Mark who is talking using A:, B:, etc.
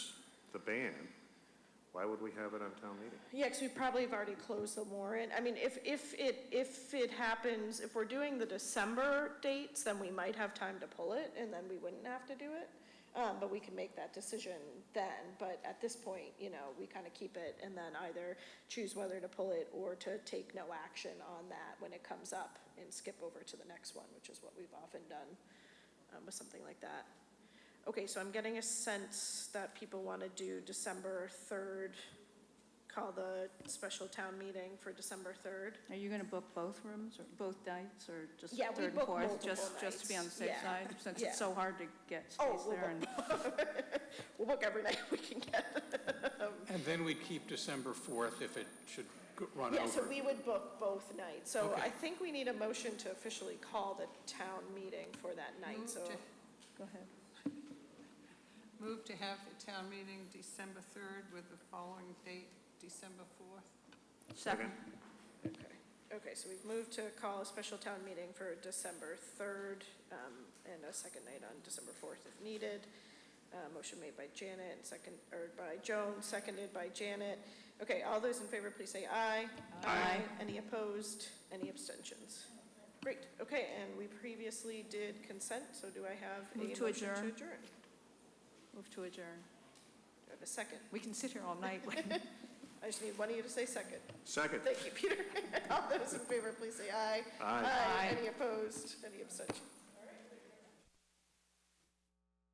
A: the ban, why would we have it on town meeting?
B: Yeah, because we probably have already closed the warrant. I mean, if, if it, if it happens, if we're doing the December dates, then we might have time to pull it, and then we wouldn't have to do it. Um, but we can make that decision then, but at this point, you know, we kind of keep it and then either choose whether to pull it or to take no action on that when it comes up and skip over to the next one, which is what we've often done, um, with something like that. Okay, so I'm getting a sense that people want to do December third call the special town meeting for December 3rd.
C: Are you going to book both rooms, or both nights, or just
B: Yeah, we
C: third and
B: book
C: fourth?
B: multiple
C: Just, just to be on the safe
B: nights, yeah,
C: side, since
B: yeah.
C: it's so hard to get
B: Oh,
C: space
B: we'll
C: there. and-
B: We'll book every night we can get.
D: And then we keep December 4th if it should go- run
B: Yeah, so
D: over.
B: we would book both nights. So
D: Okay.
B: I think we need a motion to officially call the town meeting for that night,
E: Move
B: so.
E: Mm-hmm. to-
C: Go ahead.
E: Move to have a town meeting December 3rd with the following date, December 4th.
C: Second.
B: Okay, Okay. so we've moved to call a special town meeting for December 3rd um, and a second night on December 4th if needed. Uh, Motion made by Janet, and second, or by Joan, seconded by Janet. Okay, all those in favor, please say aye.
C: Aye.
B: Any opposed? Any abstentions? Great, okay, and we previously did consent, so do I have a
C: Move
B: motion
C: to
B: to
C: adjourn.
B: adjourn? Do
C: Move to adjourn.
B: I have a second?
C: We can sit here all night.
B: I just need one of you to say second.
A: Second.
B: Thank you, Peter. All those in favor, please say aye.
A: Aye.
C: Aye.
B: Any opposed? Any abstentions?